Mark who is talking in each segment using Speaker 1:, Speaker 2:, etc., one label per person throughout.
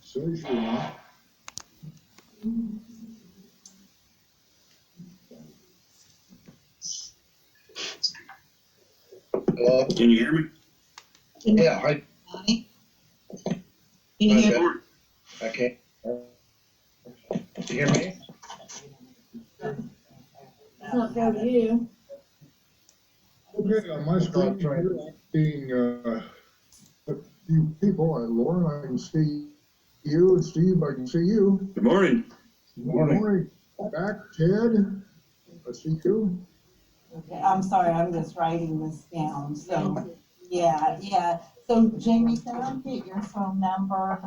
Speaker 1: surgery on.
Speaker 2: Hello?
Speaker 3: Can you hear me?
Speaker 2: Yeah, I,
Speaker 4: Donnie? Can you hear?
Speaker 2: I can't. Do you hear me?
Speaker 5: It's not fair to you.
Speaker 1: Okay, on my screen, here I'm seeing, uh, a few people, Uh, Lauren, I can see you, and Steve, I can see you.
Speaker 3: Good morning.
Speaker 2: Morning.
Speaker 1: Back, Ted, I see you.
Speaker 4: Okay, I'm sorry, I'm just writing this down, so, yeah, yeah. So Jamie, can I get your phone number?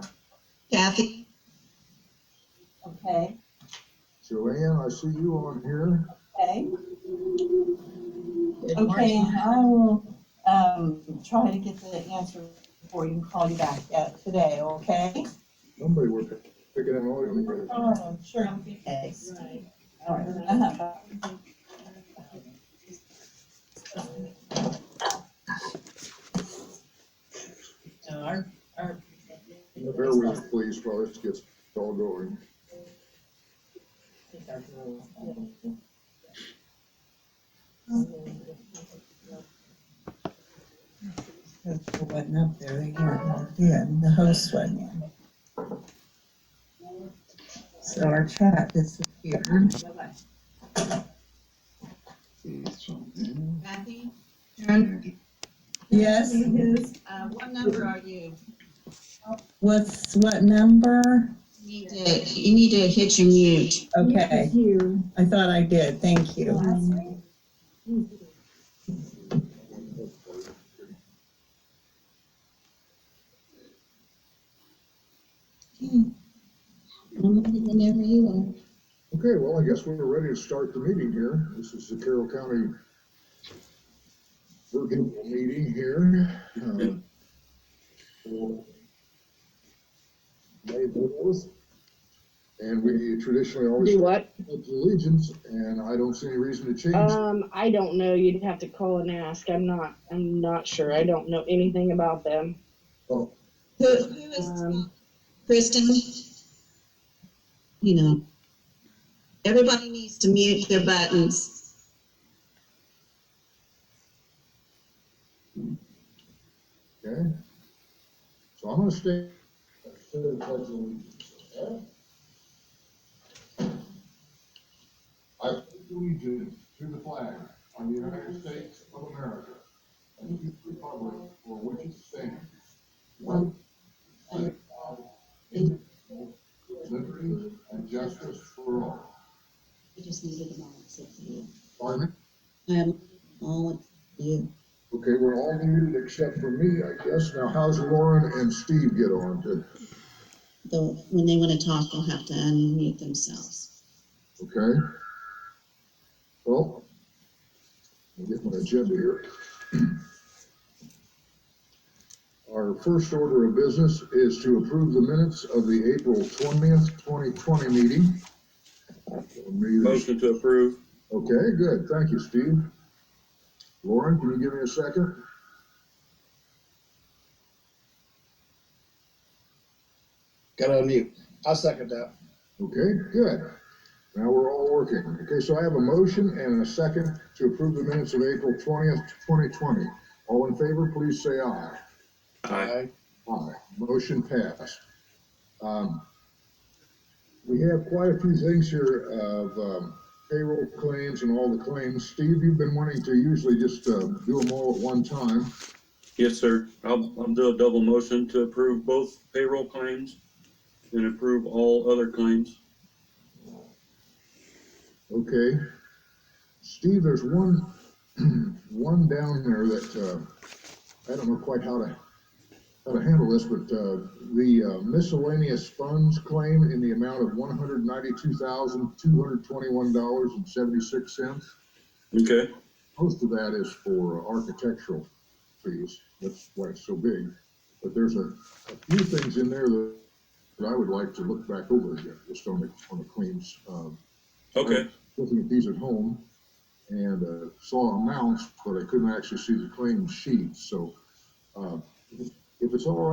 Speaker 6: Kathy,
Speaker 4: Okay,
Speaker 1: Joanne, I see you on here.
Speaker 4: okay,
Speaker 6: good
Speaker 4: okay,
Speaker 6: morning.
Speaker 4: and I will, um, try to get the answer for you and call you back uh, today, okay?
Speaker 1: Somebody were picking an oil. here.
Speaker 4: Oh, sure. Okay. All right. Uh-huh.
Speaker 6: So our- our-
Speaker 1: Bear with us, please, while this gets all going.
Speaker 6: It wasn't up there, they weren't logged in, the host wasn't in. So our chat disappeared.
Speaker 7: Mm-hmm. Kathy,
Speaker 6: Yes,
Speaker 7: uh, what number are you?
Speaker 6: what's, what number?
Speaker 7: You need to- you need to hit your mute.
Speaker 6: Okay,
Speaker 5: It's you.
Speaker 6: I thought I did, thank you.
Speaker 7: I'm ready Whenever you are.
Speaker 1: Okay, well, I guess we're ready to start the meeting here. This is the Carroll County virtual meeting here. uh, for May the fourth. And we traditionally always
Speaker 8: Do
Speaker 1: pledge
Speaker 8: what?
Speaker 1: allegiance, and I don't see any reason to change. that.
Speaker 8: Um, I don't know. You'd have to call and ask. I'm not. I'm not sure. I don't know anything about them.
Speaker 7: Who, who is,
Speaker 8: Um.
Speaker 7: Kristen? You know, everybody needs to mute their buttons.
Speaker 1: Okay? So I'm gonna stay. I pledge allegiance to the flag of the United States of America and to the republic for which it stands. one nation, Liberty and justice for all.
Speaker 7: I just needed them all except for you.
Speaker 1: Pardon me?
Speaker 7: Um, all of you.
Speaker 1: Okay, we're all muted except for me, I guess. Now how's Lauren and Steve get on to,
Speaker 7: Though, when they want to talk, they'll have to unmute themselves.
Speaker 1: okay? Well, I'll get my agenda here. Our first order of business is to approve the minutes of the April twentieth, twenty twenty meeting. Meeting-
Speaker 3: Motion to approve.
Speaker 1: Okay, good, thank you, Steve. Lauren, can you give me a second?
Speaker 2: Gotta unmute. I'll second that.
Speaker 1: Okay, good. Now we're all working. Okay, so I have a motion and a second to approve the minutes of April twentieth, twenty twenty. All in favor, please say aye.
Speaker 3: Aye.
Speaker 1: Aye. Motion passed. Um, We have quite a few things here of um, payroll claims and all the claims. Steve, you've been wanting to usually just uh, do them all at one time.
Speaker 3: Yes, sir. I'll, I'll do a double motion to approve both payroll claims and approve all other claims.
Speaker 1: Okay. Steve, there's one, one down there that, uh, I don't know quite how to, how to handle this, but, uh, the uh, miscellaneous funds claim in the amount of one hundred ninety-two thousand, two hundred twenty-one dollars and seventy-six cents.
Speaker 3: Okay,
Speaker 1: Most of that is for architectural fees. That's why it's so big. But there's a, a few things in there that, that I would like to look back over again, just on the, on the claims, um,
Speaker 3: okay,
Speaker 1: looking at these at home and uh, saw amounts, but I couldn't actually see the claim sheet, so uh, if it's all right.